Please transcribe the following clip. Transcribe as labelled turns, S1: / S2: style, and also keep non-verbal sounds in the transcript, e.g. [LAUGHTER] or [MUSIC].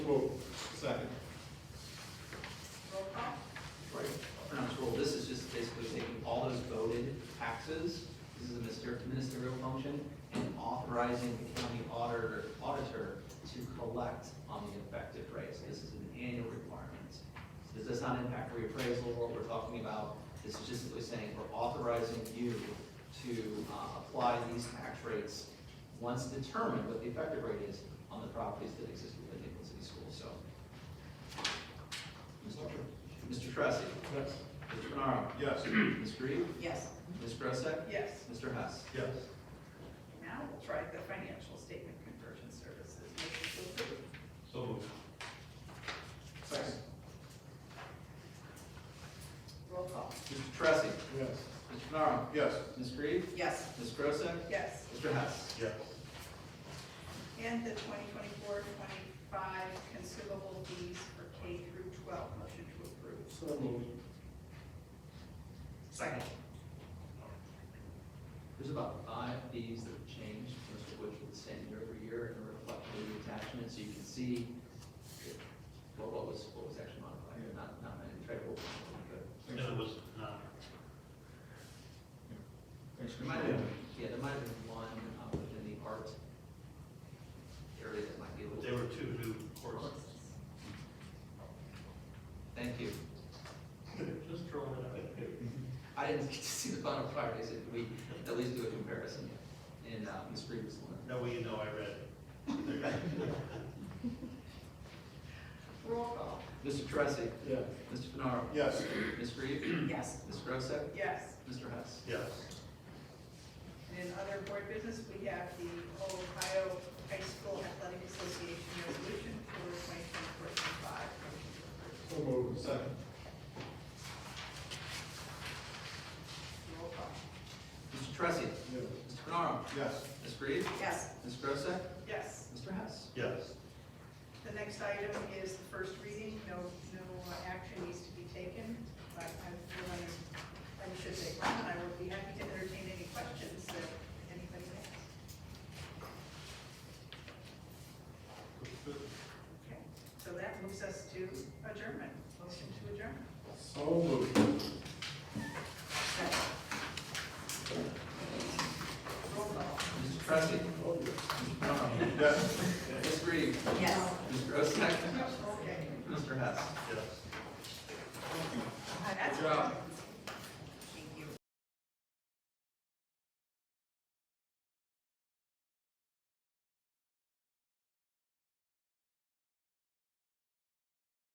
S1: approval. Second.
S2: Roll call?
S3: Right, pronounce roll, this is just basically taking all those voted taxes, this is a mister- ministerial function, and authorizing the county auditor, auditor to collect on the effective rates. This is an annual requirement. This does not impact reappraisal, what we're talking about, this is just simply saying we're authorizing you to uh, apply these tax rates once determined what the effective rate is on the properties that exist within Nicholson City Schools, so. Mr. Tr- Mr. Tressi.
S1: Yes.
S3: Mr. Renaro.
S1: Yes.
S3: Ms. Reed.
S2: Yes.
S3: Ms. Grosset.
S2: Yes.
S3: Mr. Hess.
S1: Yes.
S2: Now we'll try the financial statement conversion services. Motion to approve.
S1: So moved. Second.
S2: Roll call?
S3: Mr. Tressi.
S1: Yes.
S3: Mr. Renaro.
S1: Yes.
S3: Ms. Reed.
S2: Yes.
S3: Ms. Grosset.
S2: Yes.
S3: Mr. Hess.
S1: Yes.
S2: And the 2024-25 consumable fees for K through 12, motion to approve.
S1: So moved.
S3: Second. There's about five fees that have changed, most of which are the same year over year, and are reflected in the attachment, so you can see what, what was, what was actually modified, not, not many, try to hold on, but.
S1: Thanks,
S4: It was not.
S1: thanks,
S3: There might have been, yeah, there might have been one uh, within the art area that might be a little.
S4: There were two new courses.
S3: Thank you.
S4: Just throwing it out.
S3: I didn't [LAUGHS] get to see the final priorities, if we at least do a comparison, and uh, Ms. Reed was the one.
S4: No, way you know I read it.
S2: Roll call?
S3: Mr. Tressi,
S1: Yes.
S3: Mr. Fenaro,
S1: Yes.
S3: Ms. Reed,
S2: Yes.
S3: Ms. Grosset,
S2: Yes.
S3: Mr. Hess.
S4: Yes.
S2: And in other board business, we have the Ohio High School Athletic Association resolution for 2024-25, motion to approve.
S1: So moved. Second.
S2: Roll call?
S3: Mr. Tressi,
S1: Yes.
S3: Mr. Fenaro,
S1: Yes.
S3: Ms. Reed,
S2: Yes.
S3: Ms. Grosset,
S2: Yes.
S3: Mr. Hess.
S4: Yes.
S2: The next item is the first reading, no, no uh, action needs to be taken, but I feel I, I should take one, and I will be happy to entertain any questions that anybody has. Okay, so that moves us to adjournment, motion to adjourn.
S1: So moved.
S2: Roll call.
S3: Mr. Tressi, Mr. Fenaro,
S1: Yes.
S3: Ms. Reed,
S2: Yes.
S3: Ms. Grosset,
S2: Okay.
S3: Mr. Hess.
S4: Yes.